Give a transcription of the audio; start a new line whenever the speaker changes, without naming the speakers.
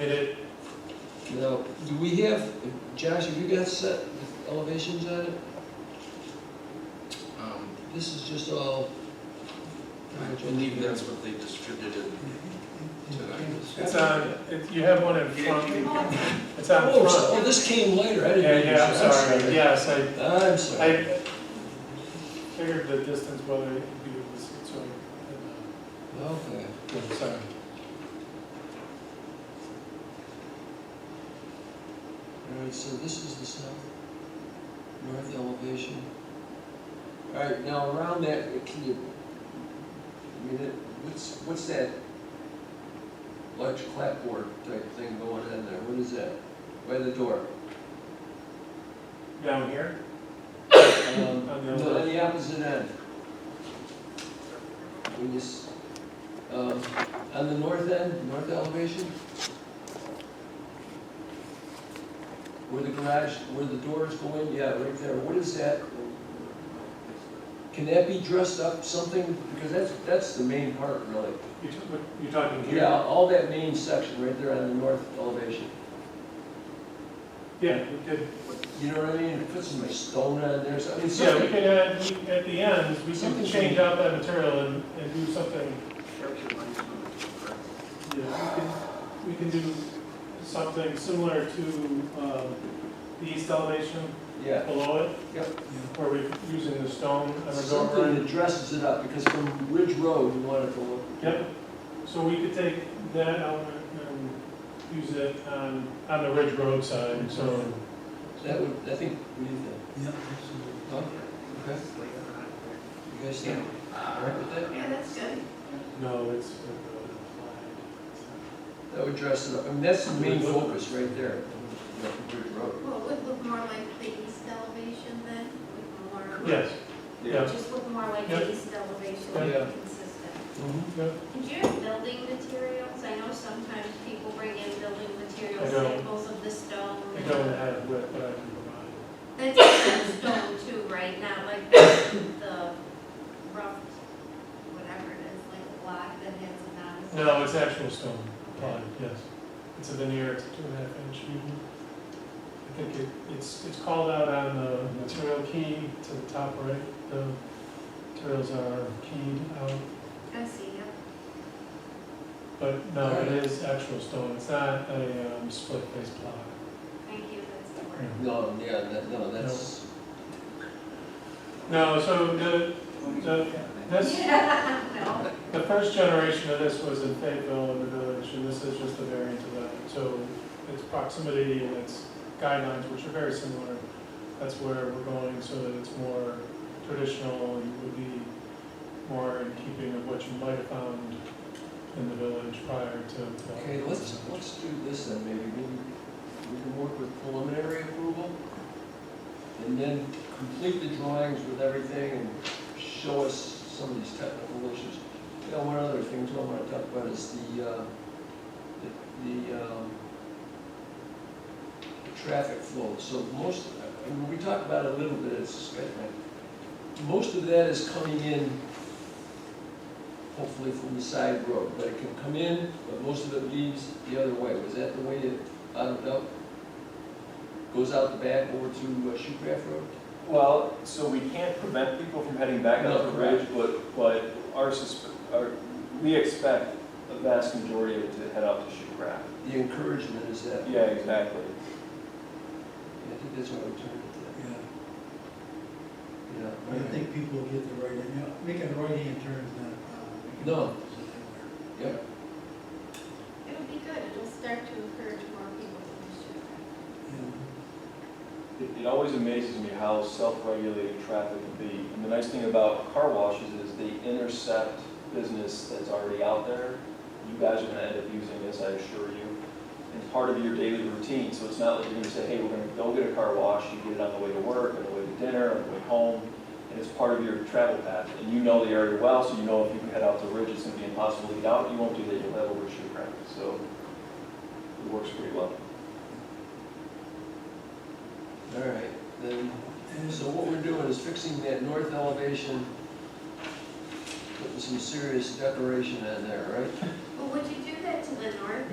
And it,
Now, do we have, Josh, have you got set the elevations on it?
Um,
This is just all.
I believe that's what they distributed tonight.
it's on, it- you have one in front, it's on
Oh, so-
front.
oh, this came later, I
Yeah,
didn't.
yeah, I'm sorry, yes, I,
I'm sorry.
I figured the distance whether it be was so,
Okay.
uh, sorry.
All right, so this is the south, north elevation. All right, now around that, uh, can you, I mean, it- what's, what's that large clapboard type thing going on there? What is that? By the door?
Down here?
Um,
On the other
no, On the opposite end. When you, s- um, on the north end, north elevation? Where the garage, where the doors go in, yeah, right there, what is that? Can that be dressed up something, because that's, that's the main part really.
You t- what- You're talking here?
Yeah, all that main section right there on the north elevation,
Yeah, we could,
you know what I mean? Put some stone on there, so, I mean,
yeah, we
something,
could add, we- at the end, we could
Something-
change out that material and, and do something. Yeah, we can, we can do something similar to, um, the east elevation
yeah.
below it.
Yep.
Where we're using the stone and the door.
Something that dresses it up, because from Ridge Road, you want it to look.
Yep, so we could take that element and use it on, on the Ridge Road side, so.
That would, I think, what do you think? Huh? Okay, you guys think, all right with that?
Yeah, that's good.
No, it's. uh,
That would dress it up, I mean, that's the main focus right there, you know, from Ridge Road.
Well, it would look more like the east elevation then, would more.
Yes, yeah,
Just look more like
Yeah.
the east elevation,
Yeah.
consistent.
Mhm.
yeah,
Did you have building materials? I know sometimes people bring in building material
I don't.
samples of the stone.
I don't have width, but I can provide.
That's just stone too, right? Not like the the rough, whatever it is, like a block that has a non.
No, it's actual stone applied, yes. It's a veneer, it's two and a half inch. I think it, it's, it's called out on the material key to the top right, the materials are keyed out.
I see, yeah.
But no, it is actual stone, it's not a um, split face block.
Thank you, that's the word.
No, yeah, that, no, that's,
No, so the, the, this,
No.
the first generation of this was in Fayetteville in the village, and this is just a variant of that. So its proximity and its guidelines, which are very similar, that's where we're going, so that it's more traditional and would be more in keeping of what you might have found in the village prior to.
okay, let's, let's do this then, maybe, maybe we can work with preliminary approval, and then complete the drawings with everything, and show us some of these technical issues. Yeah, one other thing too I want to talk about is the, uh, the, the, um, the traffic flow. So most, I mean, we talked about it a little bit, it's, most of that is coming in hopefully from the side road, but it can come in, but most of it leaves the other way. Was that the way it bottomed out? Goes out the back over to uh, Shoecraft Road?
Well, so we can't prevent people from heading back
No,
up the ridge, but, but our, susp- our, we expect a vast majority of it to head out to Shucraft.
The encouragement is that,
Yeah, exactly.
I think that's what I'm trying to,
Yeah,
you know.
I don't think people get the right, you know, making a right hand turn is not uh, a problem. Making
No.
a left is anywhere.
Yep.
It'll be good, it'll start to encourage more people to do it.
Yeah.
It, it always amazes me how self-regulating traffic can be. And the nice thing about car washes is they intercept business that's already out there. You guys are gonna end up using this, I assure you. It's part of your daily routine, so it's not like you're gonna say, hey, we're gonna go get a car wash, you get it on the way to work, on the way to dinner, on the way home. And it's part of your travel path, and you know the area well, so you know if you head out to Ridge, it's gonna be impossible to get out, you won't do that, you'll have overshoot traffic, so it works pretty well.
All right, then, so what we're doing is fixing that north elevation, putting some serious decoration in there, right?
Well, would you do that to the north